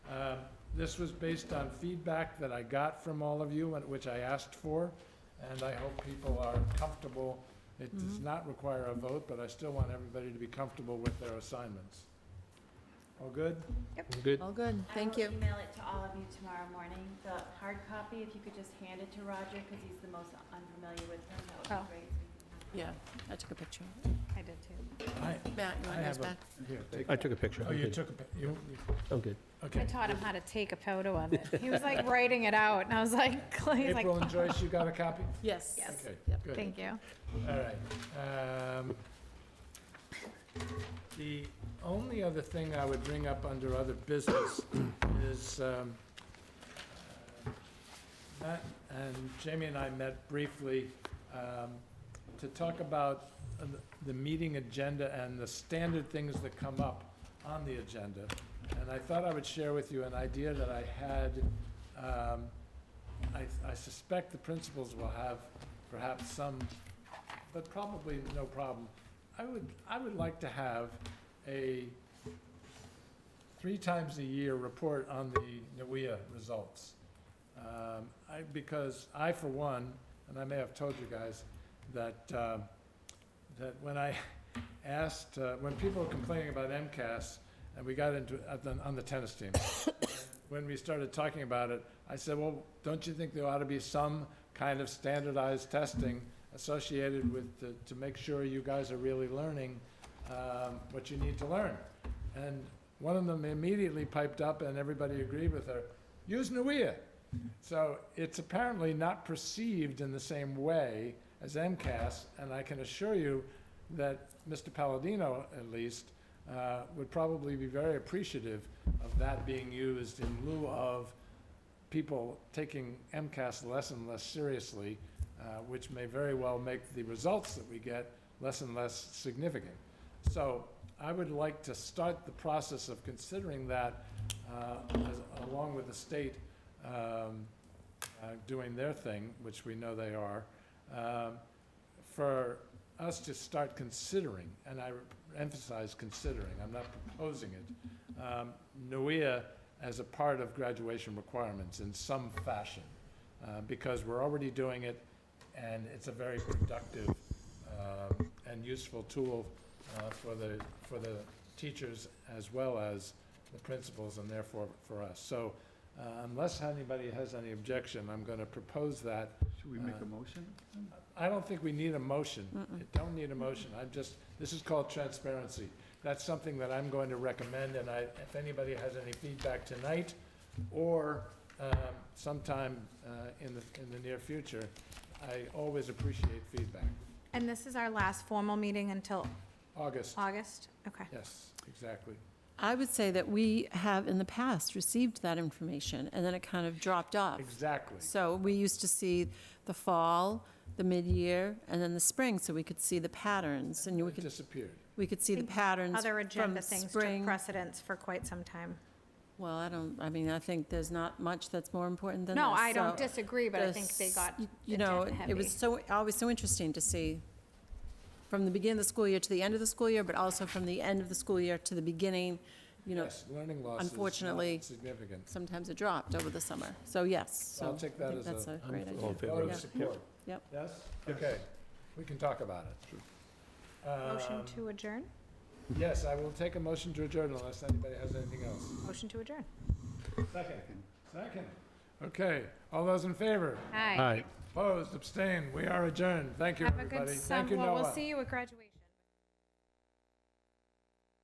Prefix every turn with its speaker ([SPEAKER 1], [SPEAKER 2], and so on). [SPEAKER 1] Uh, This was based on feedback that I got from all of you, and which I asked for, and I hope people are comfortable. It does
[SPEAKER 2] Mm-hmm.
[SPEAKER 1] not require a vote, but I still want everybody to be comfortable with their assignments. All good?
[SPEAKER 3] Good.
[SPEAKER 4] All good, thank
[SPEAKER 5] I
[SPEAKER 4] you.
[SPEAKER 5] will email it to all of you tomorrow morning, the hard copy, if you could just hand it to Roger, because he's the most unfamiliar with them, that
[SPEAKER 2] Oh.
[SPEAKER 5] would be great.
[SPEAKER 4] Yeah, I took a picture.
[SPEAKER 2] I did too.
[SPEAKER 1] I,
[SPEAKER 4] Matt, you
[SPEAKER 1] I
[SPEAKER 4] want those
[SPEAKER 1] have a,
[SPEAKER 4] back?
[SPEAKER 1] here, take,
[SPEAKER 3] I took a picture.
[SPEAKER 1] oh,
[SPEAKER 3] I'm
[SPEAKER 1] you
[SPEAKER 3] good.
[SPEAKER 1] took a, pic- you, you-
[SPEAKER 3] I'm good.
[SPEAKER 2] I
[SPEAKER 1] okay.
[SPEAKER 2] taught him how to take a photo of it. He was like writing it out, and I was like, he's like,
[SPEAKER 1] April and Joyce, you got a copy?
[SPEAKER 4] Yes.
[SPEAKER 2] Yes.
[SPEAKER 1] Okay,
[SPEAKER 4] Yep.
[SPEAKER 1] good.
[SPEAKER 2] thank you.
[SPEAKER 1] All right. um, The only other thing I would bring up under other business is, um, uh, Matt and Jamie and I met briefly um, to talk about uh, the- the meeting agenda and the standard things that come up on the agenda. And I thought I would share with you an idea that I had. um, I I suspect the principals will have perhaps some but probably no problem. I would, I would like to have a three times a year report on the NUIA results. Um, I, because I, for one, and I may have told you guys, that, um, that when I asked, uh, when people were complaining about MCAS, and we got into, at the, on the tennis team, when we started talking about it, I said, well, don't you think there ought to be some kind of standardized testing associated with, the- to make sure you guys are really learning um, what you need to learn? And one of them immediately piped up, and everybody agreed with her, use NUIA. So it's apparently not perceived in the same way as MCAS, and I can assure you that Mr. Palladino, at least, uh, would probably be very appreciative of that being used in lieu of people taking MCAS less and less seriously, uh, which may very well make the results that we get less and less significant. So I would like to start the process of considering that uh, as- along with the state um, uh, doing their thing, which we know they are, um, for us to start considering, and I emphasize considering, I'm not proposing it, um, NUIA as a part of graduation requirements in some fashion, uh, because we're already doing it, and it's a very productive um, and useful tool uh, for the, for the teachers as well as the principals, and therefore for us. So uh, unless anybody has any objection, I'm going to propose that
[SPEAKER 6] Should we make
[SPEAKER 1] Uh,
[SPEAKER 6] a motion?
[SPEAKER 1] I don't think we need a motion.
[SPEAKER 4] Mm-mm.
[SPEAKER 1] It Don't need a motion. I'm just, this is called transparency. That's something that I'm going to recommend, and I, if anybody has any feedback tonight or um, sometime uh, in the, in the near future, I always appreciate feedback.
[SPEAKER 2] And this is our last formal meeting until
[SPEAKER 1] August,
[SPEAKER 4] Uh,
[SPEAKER 2] August? Okay.
[SPEAKER 1] yes, exactly.
[SPEAKER 4] I would say that we have in the past received that information, and then it kind of dropped off.
[SPEAKER 1] Exactly.
[SPEAKER 4] So we used to see the fall, the mid-year, and then the spring, so we could see the patterns, and we
[SPEAKER 1] It
[SPEAKER 4] could,
[SPEAKER 1] disappeared.
[SPEAKER 4] we could see the patterns
[SPEAKER 2] Other
[SPEAKER 4] from
[SPEAKER 2] agenda things took
[SPEAKER 4] spring.
[SPEAKER 2] precedence for quite some time.
[SPEAKER 4] Well, I don't, I mean, I think there's not much that's more important than this.
[SPEAKER 2] No, I
[SPEAKER 4] so
[SPEAKER 2] don't disagree, but I
[SPEAKER 4] the
[SPEAKER 2] think they got
[SPEAKER 4] s- You know,
[SPEAKER 2] agenda
[SPEAKER 4] it was so,
[SPEAKER 2] heavy.
[SPEAKER 4] always so interesting to see from the beginning of the school year to the end of the school year, but also from the end of the school year to the beginning, you know,
[SPEAKER 1] Yes, learning loss is not
[SPEAKER 4] unfortunately-
[SPEAKER 1] significant.
[SPEAKER 4] sometimes it dropped over the summer. So yes, so.
[SPEAKER 1] I'll take
[SPEAKER 4] I
[SPEAKER 1] that
[SPEAKER 4] think
[SPEAKER 1] as
[SPEAKER 4] That's
[SPEAKER 1] a-
[SPEAKER 4] a great
[SPEAKER 3] I'm
[SPEAKER 4] idea.
[SPEAKER 3] all in favor
[SPEAKER 1] Vote of
[SPEAKER 3] of it.
[SPEAKER 4] yeah.
[SPEAKER 1] support.
[SPEAKER 4] Yep.
[SPEAKER 1] Yes?
[SPEAKER 6] Yes.
[SPEAKER 1] Okay, we can talk about it.
[SPEAKER 2] Motion
[SPEAKER 1] Um,
[SPEAKER 2] to adjourn?
[SPEAKER 1] Yes, I will take a motion to adjourn unless anybody has anything else.
[SPEAKER 4] um,
[SPEAKER 2] Motion to adjourn.
[SPEAKER 1] Second. Second. Okay, all those in favor?
[SPEAKER 2] Aye.
[SPEAKER 3] All right.
[SPEAKER 1] Opposed, abstained, we are adjourned. Thank you,
[SPEAKER 2] Have a
[SPEAKER 1] everybody.
[SPEAKER 2] good
[SPEAKER 1] Thank you,
[SPEAKER 2] summer. Well,
[SPEAKER 1] Noah.
[SPEAKER 2] we'll see you at graduation.